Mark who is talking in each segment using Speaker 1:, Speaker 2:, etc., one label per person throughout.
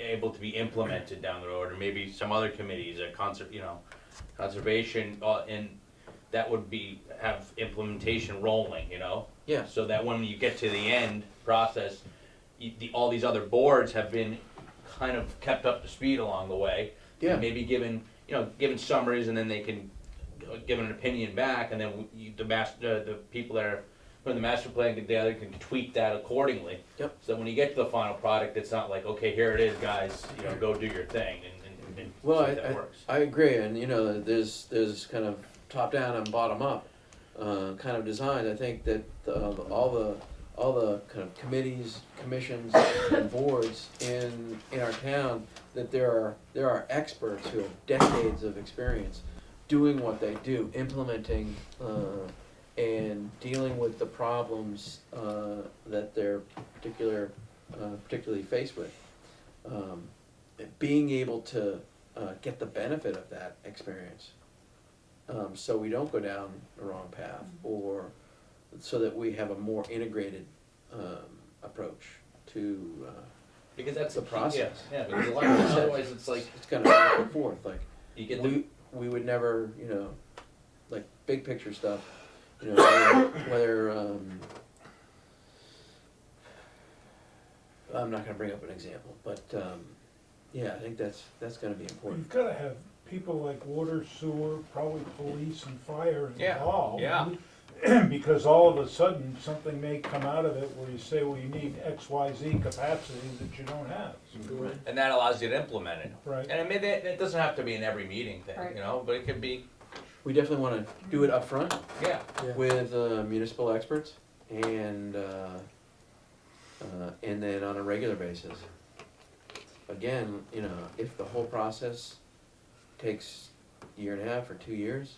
Speaker 1: able to be implemented down the road, or maybe some other committees, a conser, you know, conservation, uh, and that would be, have implementation rolling, you know?
Speaker 2: Yeah.
Speaker 1: So that when you get to the end process, you, the, all these other boards have been kind of kept up to speed along the way.
Speaker 2: Yeah.
Speaker 1: Maybe given, you know, given summaries, and then they can uh, give an opinion back, and then you, the master, the people that are, from the master plan, the other can tweak that accordingly.
Speaker 2: Yep.
Speaker 1: So when you get to the final product, it's not like, okay, here it is, guys, you know, go do your thing, and, and, and see
Speaker 2: Well,
Speaker 1: if
Speaker 2: I-
Speaker 1: that works.
Speaker 2: I agree, and you know, there's there's kind of top down and bottom up uh, kind of design. I think that uh, all the all the kind of committees, commissions, and boards in in our town that there are there are experts who have decades of experience doing what they do, implementing uh, and dealing with the problems uh, that they're particular uh, particularly faced with. Um, being able to uh, get the benefit of that experience. Um, so we don't go down the wrong path, or so that we have a more integrated um, approach to. Uh,
Speaker 1: Because that's
Speaker 2: the
Speaker 1: key,
Speaker 2: process.
Speaker 1: Yeah, yeah, because a lot of, otherwise, it's like,
Speaker 2: it's kind of back and forth. Like
Speaker 1: you get the
Speaker 2: we, we would never, you know, like big picture stuff. You know, whether, whether um, I'm not going to bring up an example, but um, yeah, I think that's that's going to be important.
Speaker 3: You've gotta have people like water, sewer, probably police and fire
Speaker 1: Yeah,
Speaker 3: involved.
Speaker 1: yeah.
Speaker 3: Because all of a sudden, something may come out of it where you say, well, you need X, Y, Z capacity that you don't have.
Speaker 1: and that allows you to implement it.
Speaker 3: Right.
Speaker 1: And I mean, that, that doesn't have to be an every meeting thing,
Speaker 4: Right.
Speaker 1: you know, but it could be,
Speaker 2: We definitely want to do it up front.
Speaker 1: yeah,
Speaker 2: with uh, municipal experts and uh, uh, and then on a regular basis. Again, you know, if the whole process takes a year and a half or two years,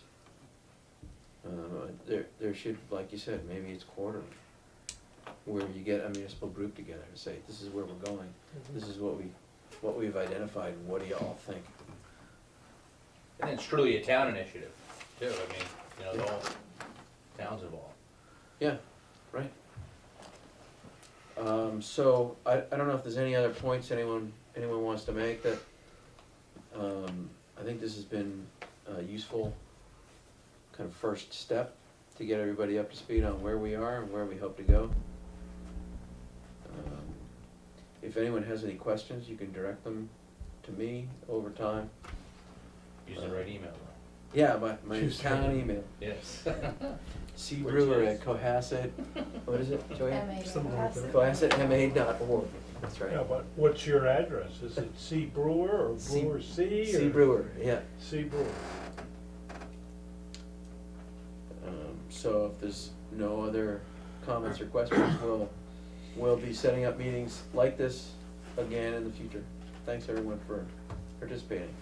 Speaker 2: uh, there there should, like you said, maybe it's quarterly, where you get a municipal group together and say, this is where we're going, this is what we what we've identified. What do you all think?
Speaker 1: and it's truly a town initiative, too, I mean, you know, the whole town's involved.
Speaker 2: Right. Um, so, I, I don't know if there's any other points anyone, anyone wants to make that, um, I think this has been a useful kind of first step to get everybody up to speed on where we are and where we hope to go. Um, If anyone has any questions, you can direct them to me over time.
Speaker 1: Use the right email.
Speaker 2: Yeah, my, my
Speaker 5: She's
Speaker 2: town email,
Speaker 1: Yes.
Speaker 2: C Brewer at Cohasset, what is it, Joanne?
Speaker 5: Something like that.
Speaker 2: CohassetMA dot org, that's right.
Speaker 3: Yeah, but what's your address? Is it C Brewer or
Speaker 2: C-
Speaker 3: Brewer C?
Speaker 2: C
Speaker 3: or-
Speaker 2: Brewer, yeah.
Speaker 3: C Brewer.
Speaker 2: Um, so if there's no other comments or questions, we'll, we'll be setting up meetings like this again in the future. Thanks everyone for participating.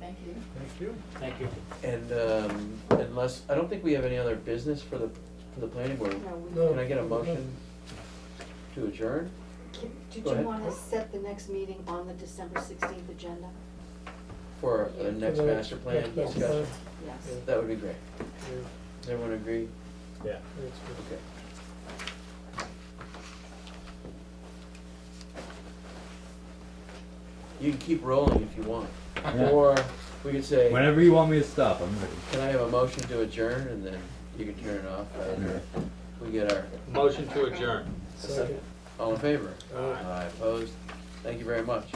Speaker 4: Thank you.
Speaker 3: Thank you.
Speaker 1: Thank you.
Speaker 2: And, um, unless, I don't think we have any other business for the, for the planning board.
Speaker 5: No.
Speaker 2: Can I get a motion to adjourn?
Speaker 4: Did
Speaker 2: Go
Speaker 4: you
Speaker 2: ahead.
Speaker 4: want to set the next meeting on the December sixteenth agenda?
Speaker 2: For the next
Speaker 5: Yeah.
Speaker 2: master plan
Speaker 5: Next master
Speaker 2: discussion?
Speaker 4: Yes.
Speaker 5: Yeah.
Speaker 2: That would be great.
Speaker 5: Yeah,
Speaker 2: Does everyone agree?
Speaker 3: Yeah.
Speaker 5: that's good.
Speaker 2: Okay. You can keep rolling if you want, or we could say, can
Speaker 6: Whenever you want me to stop, I'm ready.
Speaker 2: I have a motion to adjourn, and then you can turn it off after we get our,
Speaker 1: Motion to adjourn.
Speaker 5: Second.
Speaker 2: all in favor?
Speaker 5: Aye.
Speaker 2: Opposed? Thank you very much.